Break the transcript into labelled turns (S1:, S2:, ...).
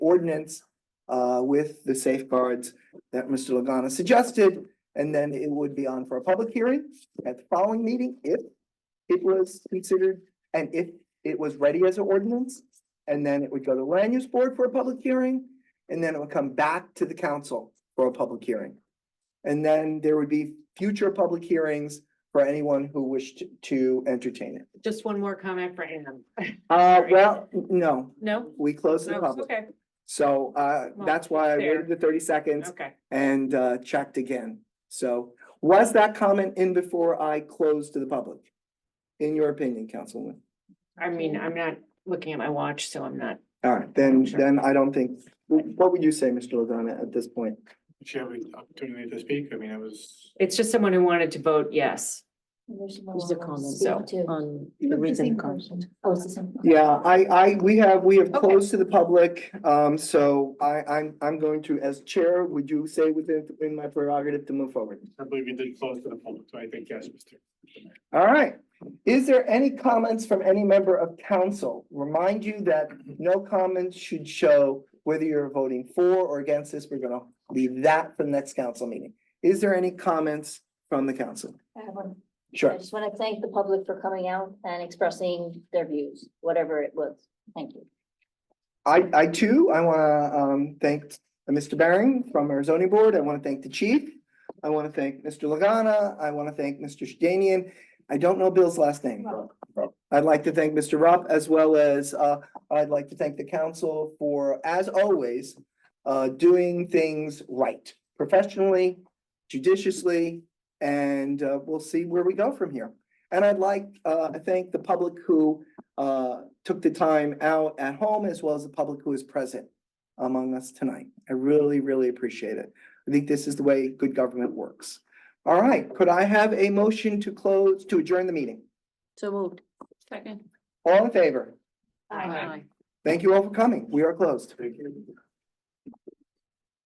S1: ordinance uh, with the safeguards that Mr. Lagana suggested, and then it would be on for a public hearing at the following meeting if it was considered and if it was ready as an ordinance. And then it would go to land use board for a public hearing, and then it would come back to the council for a public hearing. And then there would be future public hearings for anyone who wished to entertain it.
S2: Just one more comment for Ann.
S1: Uh,
S2: Sorry.
S1: well, no,
S2: No?
S1: we closed the
S2: No,
S1: public.
S2: okay,
S1: So uh,
S2: Well,
S1: that's why I
S2: fair.
S1: waited the thirty seconds
S2: okay.
S1: and uh, checked again. So was that comment in before I closed to the public? In your opinion, Councilwoman?
S2: I mean, I'm not looking at my watch, so I'm not.
S1: All right, then,
S2: Sure.
S1: then I don't think, wh- what would you say, Mr. Lagana, at this point?
S3: Did she have an opportunity to speak? I mean, it was.
S2: It's just someone who wanted to vote yes.
S4: There's no
S5: There's a comment
S4: speak
S2: so,
S4: to.
S5: on
S4: It's
S5: the reason.
S4: same
S5: comes.
S4: person. Oh, it's the same. person.
S1: Yeah, I, I, we have, we have
S2: Okay.
S1: closed to the public, um, so I, I'm, I'm going to, as chair, would you say within, in my prerogative to move forward?
S3: I believe you did close to the public, so I think yes, Mr.
S1: All right. Is there any comments from any member of council? Remind you that no comments should show whether you're voting for or against this. We're gonna leave that for the next council meeting. Is there any comments from the council?
S4: I have one. I
S1: Sure.
S4: just want to thank the public for coming out and expressing their views, whatever it was. Thank you.
S1: I, I too, I want to um, thank Mr. Baring from our zoning board. I want to thank the chief. I want to thank Mr. Lagana. I want to thank Mr. Shedanian. I don't know Bill's last name. I'd like to thank Mr. Rupp as well as uh, I'd like to thank the council for, as always, uh, doing things right, professionally, judiciously, and uh, we'll see where we go from here. And I'd like uh, to thank the public who uh, took the time out at home as well as the public who is present among us tonight. I really, really appreciate it. I think this is the way good government works. All right, could I have a motion to close, to adjourn the meeting?
S5: So moved. Second.
S1: All in favor?
S2: Aye.
S1: Thank you all for coming. We are closed.
S3: Thank you.